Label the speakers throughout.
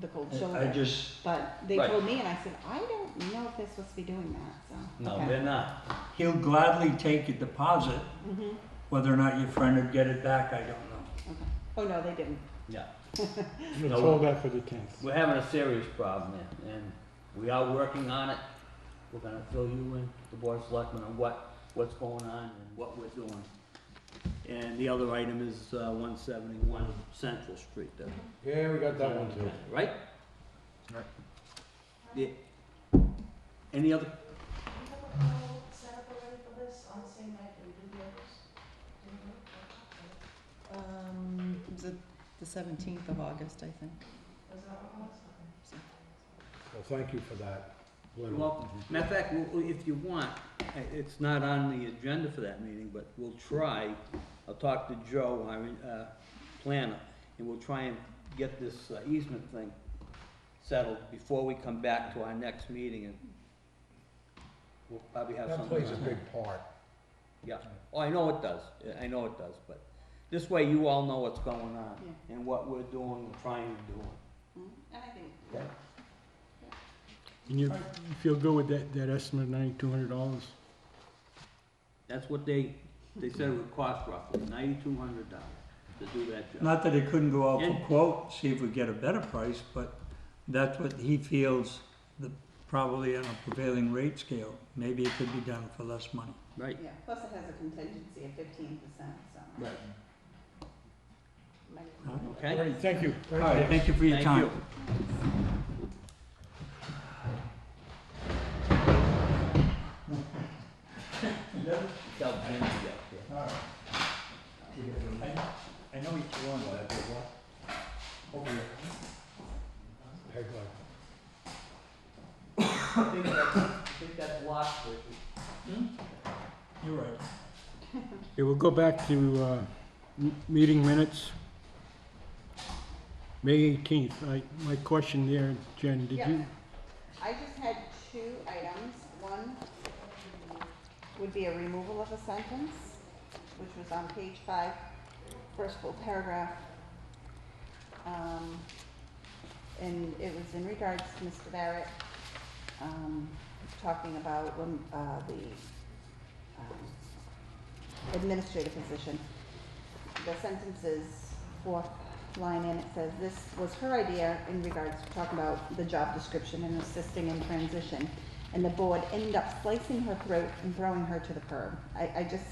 Speaker 1: the cold
Speaker 2: I- I
Speaker 1: shoulder.
Speaker 2: just,
Speaker 1: But they
Speaker 3: Right.
Speaker 1: told me and I said, I don't know if they're supposed to be doing that, so.
Speaker 3: No, they're not.
Speaker 2: he'll gladly take your deposit,
Speaker 1: Mm-hmm,
Speaker 2: whether or not your friend would get it back, I don't know.
Speaker 1: okay. Oh, no, they didn't.
Speaker 3: Yeah.
Speaker 4: Let's
Speaker 3: No.
Speaker 4: hold that for the tenth.
Speaker 3: We're having a serious problem there, and we are working on it. We're gonna fill you in, the board of selectmen, on what, what's going on and what we're doing. And the other item is, uh, one seventy-one Central Street, there.
Speaker 4: Yeah, we got that one too.
Speaker 3: Right?
Speaker 5: Right.
Speaker 3: Yeah. Any other,
Speaker 6: Um, it was the, the seventeenth of August, I think.
Speaker 4: Well, thank you for that.
Speaker 3: you're welcome. Matter of fact, we'll- if you want, i- it's not on the agenda for that meeting, but we'll try, I'll talk to Joe, our, uh, planner, and we'll try and get this uh, easement thing settled before we come back to our next meeting and we'll probably have
Speaker 4: That
Speaker 3: something.
Speaker 4: plays a
Speaker 3: on
Speaker 4: big part.
Speaker 3: Yeah, oh, I know it does, Yeah, I know it does, but this way you all know what's going on
Speaker 1: Yeah.
Speaker 3: and what we're doing and trying to do.
Speaker 1: Mm, And I think,
Speaker 4: And you you feel good with that, that estimate, ninety-two hundred dollars?
Speaker 3: That's what they, they said it would cost roughly, ninety-two hundred dollars to do that job.
Speaker 2: Not that it couldn't go out for
Speaker 3: Yeah.
Speaker 2: quote, see if we get a better price, but that's what he feels, the, probably on a prevailing rate scale, maybe it could be done for less money.
Speaker 3: Right.
Speaker 1: yeah, plus it has a contingency of fifteen percent, so.
Speaker 3: Right.
Speaker 1: Might as well.
Speaker 2: All right.
Speaker 4: All
Speaker 3: Okay?
Speaker 4: right, thank you.
Speaker 2: All right, thank you for your
Speaker 3: Thank
Speaker 2: time.
Speaker 3: you. Tell Jim to get here.
Speaker 5: I know each one, but what?
Speaker 4: Hey, Glenn.
Speaker 3: I think that's, I think that's locked, Richard.
Speaker 2: You're right.
Speaker 4: Okay, we'll go back to, uh, m- meeting minutes. May eighteenth, I, my question there, Jen, did
Speaker 1: Yeah.
Speaker 4: you?
Speaker 1: I just had two items. One would be a removal of a sentence, which was on page five, first full paragraph. Um, and it was in regards to Mr. Barrett, um, talking about when, uh, the, um, administrative position. The sentence is fourth line in, it says, this was her idea in regards to talking about the job description and assisting in transition. And the board ended up slicing her throat and throwing her to the curb. I, I just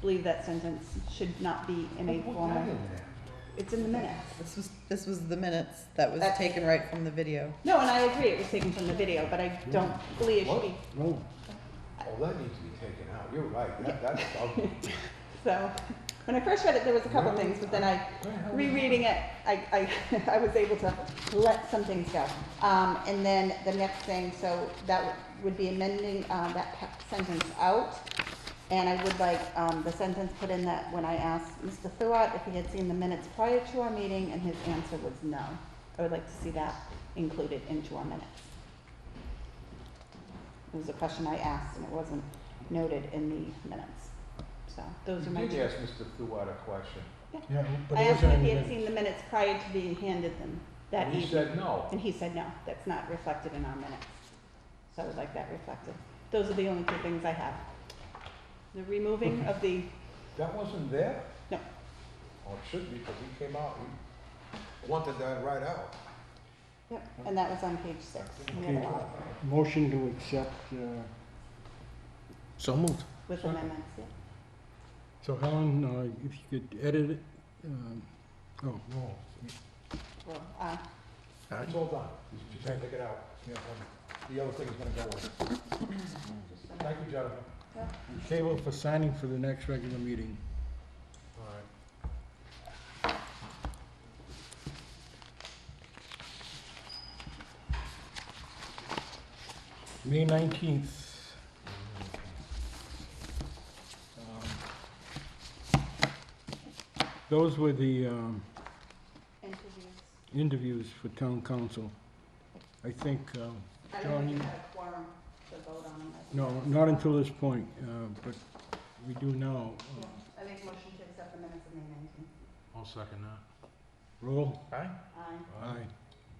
Speaker 1: believe that sentence should not be in a formal. It's in the minutes.
Speaker 6: This was, this was the minutes that was
Speaker 1: That's-
Speaker 6: taken right from the video.
Speaker 1: No, and I agree, it was taken from the video, but I don't believe it should be,
Speaker 4: No.
Speaker 7: Oh, that needs to be taken out, you're right, that, that's ugly.
Speaker 1: so. When I first read it, there was a couple things, but then I, rereading it, I, I, I was able to let some things go. Um, and then the next thing, so that would- would be amending, uh, that pa- sentence out. And I would like, um, the sentence put in that when I asked Mr. Thuat if he had seen the minutes prior to our meeting, and his answer was no. I would like to see that included into our minutes. It was a question I asked, and it wasn't noted in the minutes, so those are my
Speaker 7: You
Speaker 1: two.
Speaker 7: did ask Mr. Thuat a question,
Speaker 4: Yeah, but
Speaker 1: I
Speaker 4: it
Speaker 1: asked
Speaker 4: wasn't
Speaker 1: him if he
Speaker 4: in the
Speaker 1: had
Speaker 4: minutes.
Speaker 1: seen the minutes prior to being handed them that
Speaker 7: and he
Speaker 1: evening,
Speaker 7: said no.
Speaker 1: and he said, no, that's not reflected in our minutes. So I would like that reflected. Those are the only two things I have. The removing of the,
Speaker 7: That wasn't there?
Speaker 1: No.
Speaker 7: Oh, it should be, because he came out, he wanted that right out.
Speaker 1: yep, and that was on page six. in the other
Speaker 4: Okay.
Speaker 1: one,
Speaker 4: Motion to accept, uh,
Speaker 5: So moved.
Speaker 1: With amendments, yeah.
Speaker 4: so Helen, uh, if you could edit it, um, oh,
Speaker 5: No.
Speaker 1: Well, uh,
Speaker 7: It's all done, you can take it out, the other thing's gonna go with it. Thank you, gentlemen.
Speaker 4: table for signing for the next regular meeting.
Speaker 7: All right.
Speaker 4: May nineteenth. Um, Those were the um,
Speaker 1: interviews.
Speaker 4: interviews for town council. I think, um,
Speaker 1: I
Speaker 4: John,
Speaker 1: don't think
Speaker 4: you-
Speaker 1: we had a quorum to vote on them.
Speaker 4: no, not until this point, uh, but we do now.
Speaker 1: Yeah,
Speaker 4: Uh,
Speaker 1: I make a motion to accept the minutes of May nineteenth.
Speaker 5: I'll second that.
Speaker 4: Roll?
Speaker 5: Aye.
Speaker 1: Aye.
Speaker 4: Aye.